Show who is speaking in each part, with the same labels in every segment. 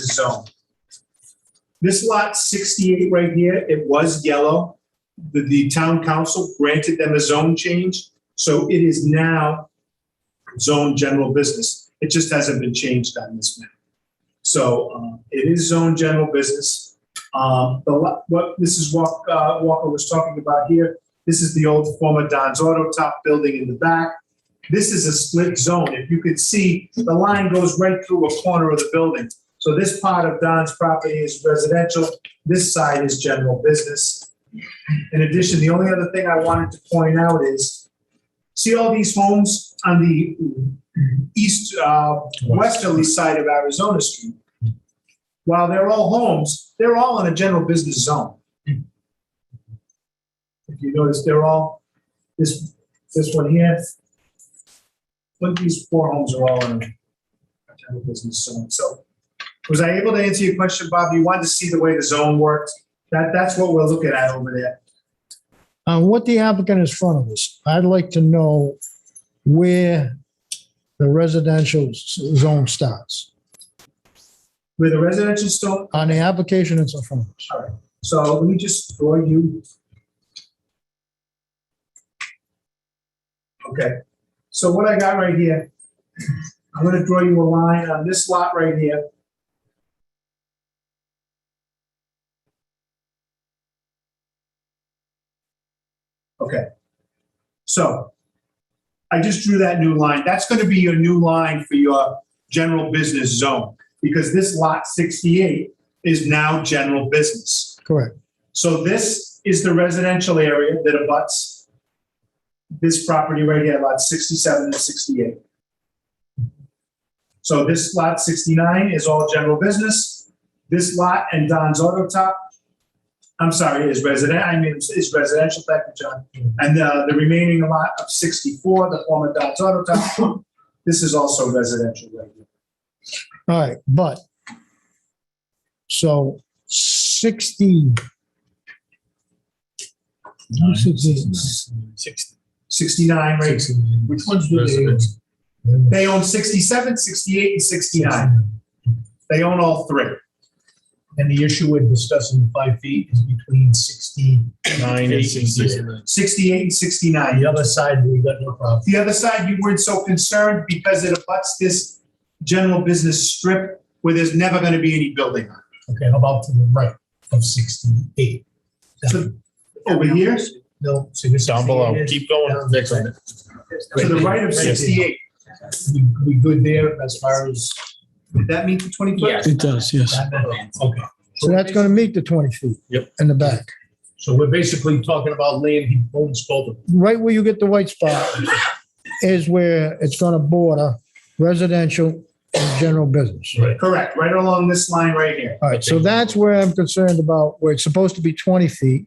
Speaker 1: zone. This lot 68 right here, it was yellow. The, the town council granted them a zone change, so it is now zone general business. It just hasn't been changed on this map. So um, it is zone general business. Um, The, lo- what Mrs. Walk- uh, Walker was talking about here, this is the old former Don's Auto Top building in the back. This is a split zone. If you could see, the line goes right through a corner of the building. So this part of Don's property is residential, this side is general business. In addition, the only other thing I wanted to point out is, see all these homes on the east, uh, westerly side of Arizona Street? While they're all homes, they're all in a general business zone. If you notice, they're all, this, this one here, but these four homes are all in a general business zone, so was I able to answer your question, Bob? You wanted to see the way the zone worked? That, that's what we're looking at over there.
Speaker 2: Uh, what the applicant is front of us, I'd like to know where the residential s- zone starts.
Speaker 1: Where the residential store,
Speaker 2: On the application, it's in front of us.
Speaker 1: so let me just draw you. Okay, so what I got right here, I'm gonna draw you a line on this lot right here. Okay, so I just drew that new line. That's gonna be your new line for your general business zone, because this lot sixty-eight is now general business.
Speaker 2: Correct.
Speaker 1: So this is the residential area that abuts this property right here, lot 67 and 68. So this lot 69 is all general business. This lot and Don's Auto Top, I'm sorry, is resident, I mean, is residential, thank you, John. And uh, the remaining lot of 64, the former Don's Auto Top, this is also residential right here.
Speaker 2: All right, but so sixty.
Speaker 3: Sixty.
Speaker 1: 69 right here.
Speaker 3: Which ones do they?
Speaker 1: They own 67, 68, and
Speaker 3: uh,
Speaker 1: 69. They own all three.
Speaker 3: And the issue with discussing five feet is between sixty-nine, eight, and sixty-nine.
Speaker 1: 68 and 69.
Speaker 3: The other side, we got no problem.
Speaker 1: The other side, you weren't so concerned because it abuts this general business strip where there's never going to be any building on.
Speaker 3: Okay, how about to the right of sixty-eight?
Speaker 1: So- Over here, to
Speaker 3: No, so this.
Speaker 4: Down below. Keep going. Next one.
Speaker 1: the right of 68,
Speaker 3: We, we good there as far as?
Speaker 1: did that meet the 20 foot?
Speaker 5: It does, yes.
Speaker 3: Okay,
Speaker 2: So that's gonna meet the twenty feet.
Speaker 4: Yep.
Speaker 2: In the back.
Speaker 3: so we're basically talking about land he owns both of them.
Speaker 2: Right where you get the white spot is where it's gonna border residential and general business.
Speaker 3: Right.
Speaker 1: Correct, right along this line right here.
Speaker 2: All right, so that's where I'm concerned about, where it's supposed to be 20 feet,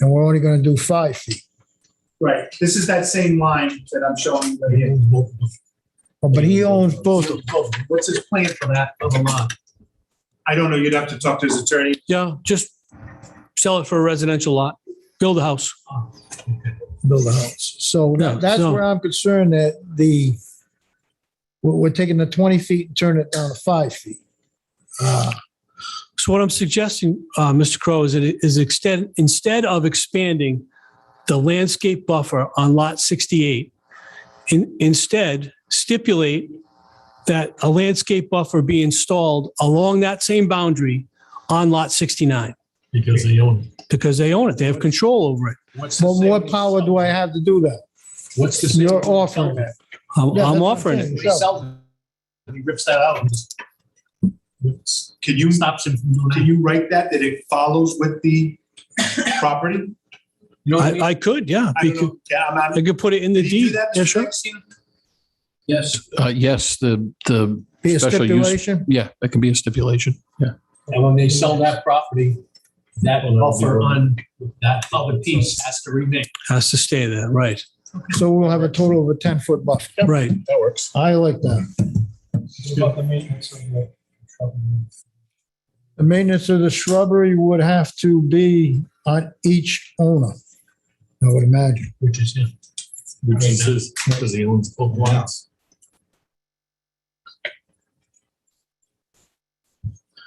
Speaker 2: and we're only going to do five feet.
Speaker 1: Right, this is that same line that I'm showing you right
Speaker 3: He
Speaker 1: here.
Speaker 3: owns both of them.
Speaker 2: Oh, But he owns both. of-
Speaker 3: What's his plan for that other lot?
Speaker 1: I don't know, you'd have to talk to his attorney.
Speaker 5: Yeah, just sell it for a residential lot, build a house.
Speaker 2: Build a house. So
Speaker 5: Yeah,
Speaker 2: that's
Speaker 5: so-
Speaker 2: where I'm concerned that the, we're, we're taking the 20 feet and turning it down to five feet. Uh,
Speaker 5: So what I'm suggesting, uh, Mr. Crow, is that it is extend, instead of expanding the landscape buffer on lot 68, in, instead stipulate that a landscape buffer be installed along that same boundary on lot 69
Speaker 3: Because they own it.
Speaker 5: because they own it. They have control over it.
Speaker 3: What's the
Speaker 2: Well, what
Speaker 3: savings?
Speaker 2: power do I have to do that?
Speaker 3: What's the?
Speaker 2: You're
Speaker 3: savings?
Speaker 2: offering that.
Speaker 5: I'm,
Speaker 2: Yeah, that's
Speaker 5: I'm
Speaker 2: what
Speaker 5: offering
Speaker 2: saying.
Speaker 5: it.
Speaker 3: He sells it, and he rips that out and just. whips-
Speaker 1: Can you,
Speaker 3: Stops him from doing
Speaker 1: can
Speaker 3: that.
Speaker 1: you write that, that it follows with the property?
Speaker 3: You know what I
Speaker 5: I,
Speaker 3: mean?
Speaker 5: I could, yeah.
Speaker 1: I don't
Speaker 5: because-
Speaker 1: know, yeah, I'm,
Speaker 5: I
Speaker 1: I'm.
Speaker 5: could put it in the
Speaker 1: Did you do
Speaker 5: deed.
Speaker 1: that,
Speaker 5: Yeah,
Speaker 1: Mr.
Speaker 5: sure.
Speaker 1: Epstein?
Speaker 3: Yes.
Speaker 4: Uh, yes, the, the,
Speaker 2: Be a
Speaker 4: Special use-
Speaker 2: stipulation?
Speaker 4: yeah, that can be a stipulation.
Speaker 3: And when they sell that property, that buffer on that other piece has to remain.
Speaker 5: Has to stay there, right,
Speaker 2: So we'll have a total of a 10-foot buffer.
Speaker 5: right.
Speaker 3: That works.
Speaker 2: I like that.
Speaker 3: About the maintenance of the shrubbery.
Speaker 2: The maintenance of the shrubbery would have to be on each owner, I would imagine.
Speaker 3: Which is him. Which is his, because he owns both lots.